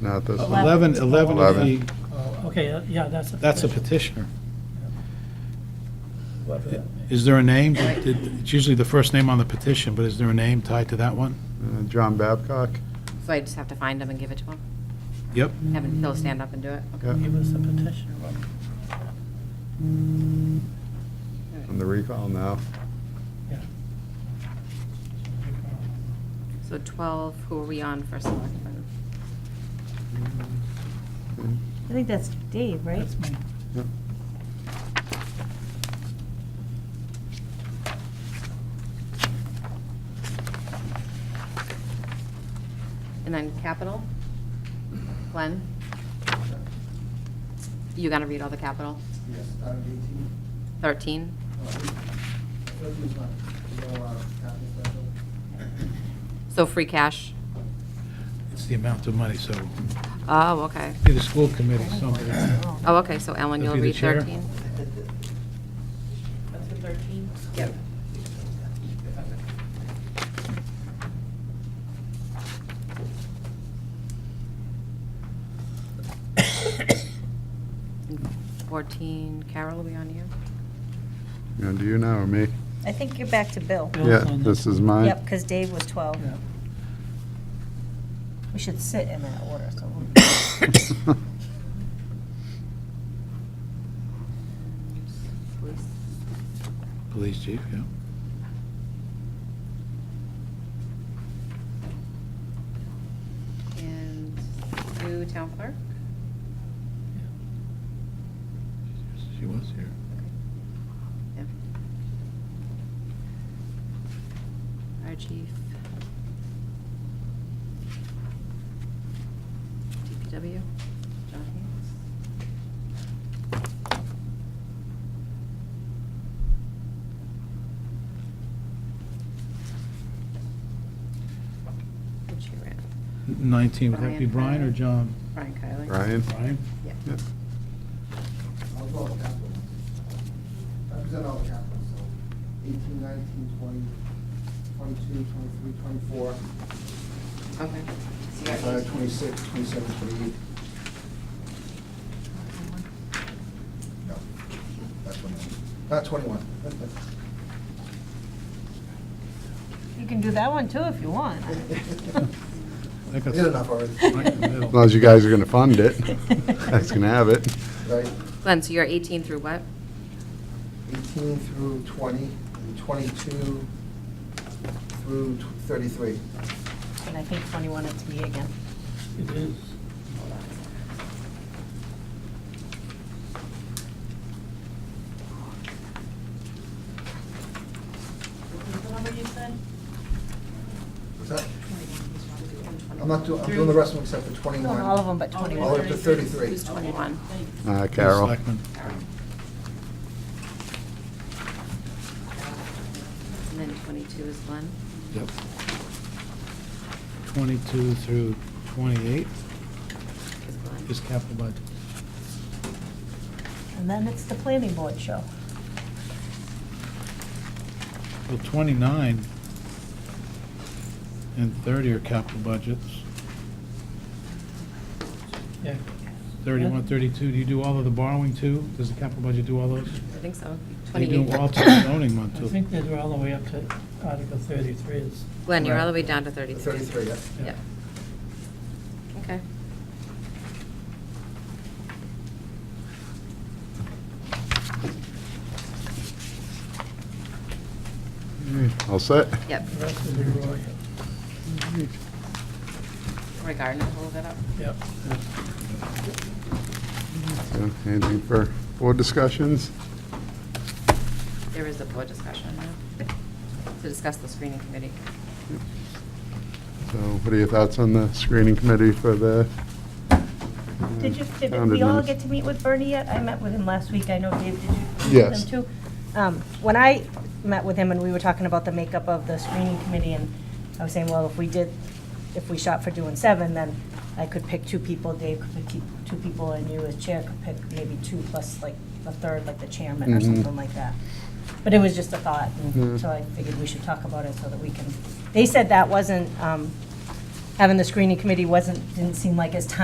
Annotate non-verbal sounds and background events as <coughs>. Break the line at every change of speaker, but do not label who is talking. Not this one.
11, 11 of the,
Eleven.
Oh, Okay, that- yeah, that's a.
that's a
petition.
petitioner.
Whoever that may be.
Is there a name? Did- did- It's usually the first name on the petition, but is there a name tied to that one?
Uh, John Babcock,
So I just have to find him and give it to him?
Yep.
Have him, he'll stand up and do it? Okay.
yeah,
He was a petitioner.
on the recall now.
Yeah.
So 12, who are we on for selectmen?
I think that's Dave, right?
That's me.
Yeah.
And then capital? Glenn? You gonna read all the capital?
Yes, out of eighteen.
13?
uh, Thirteen's not, you know, uh, capital special.
So free cash?
It's the amount of money, so
Oh, okay.
be the school committee, somebody.
Oh, okay, so Ellen,
You'll
you'll
be the
read
chair?
13?
That's for 13?
Yep. <coughs> And 14, Carol, are we on you?
You know, do you know or me?
I think you're back to Bill.
Bill's
Yeah,
on
this
that.
is mine.
Yep, because Dave was 12.
Yeah.
We should sit in that order, so. <coughs> we'll-
Police?
Police chief, yeah.
And new town clerk?
She was here.
Yeah. Fire chief. DPW, John Hayes. Which you ran,
19, would that be
Brian.
Brian or John?
Brian
<laughs>
Kiley.
Ryan?
Brian?
Yeah.
Yeah.
I'll go with capital. I present all the capital, so eighteen, nineteen, twenty, twenty-two, twenty-three, twenty-four,
Okay. So you got
uh,
these.
twenty-six, twenty-seven, twenty-eight. No, not twenty-one, not twenty-one.
You can do that one too if you <laughs> want.
I think
I
that's-
did enough already,
Right in the middle.
As long as you guys are going to fund
<laughs>
it, that's going to have it.
right?
Glenn, so you're 18 through what?
18 through 20, and 22 through tw- 33.
And I think 21 it's me again.
It is.
What number you said?
What's that? I'm not doing, I'm doing the rest of them except for 21.
All of them but
Oh,
21.
All the way up to 33.
Who's 21?
Thank you.
Uh, Carol?
Selectmen.
And then 22 is Glenn?
Yep. 22 through 28
Is Glenn.
is capital budget.
And then it's the planning board show.
Well, 29 and 30 are capital budgets.
Yeah.
31, 32, do you do all of the borrowing too? Does the capital budget do all those?
I think so.
You do
28.
all to the zoning one
I
too.
think they're all the way up to Article 33 is.
Glenn, you're all the way down to 33.
33, yeah.
Yep. Okay.
All set?
Yep.
The rest is Roy.
Roy Gardner, hold that up.
Yep.
So, Anything for board discussions?
There is a board discussion now to discuss the screening committee.
So what are your thoughts on the screening committee for the? uh,
Did you, did
town
we all
adminis-
get to meet with Bernie yet? I met with him last week, I know Dave, did you? meet with
Yes.
him too? Um, When I met with him and we were talking about the makeup of the screening committee, and I was saying, well, if we did, if we shot for doing seven, then I could pick two people, Dave could pick two- two people, and you as chair could pick maybe two plus like a third, like the chairman or
Mhm.
something like that. But it was just a thought,
Yeah.
and so I figured we should talk about it so that we can, they said that wasn't, um, having the screening committee wasn't, didn't seem like as time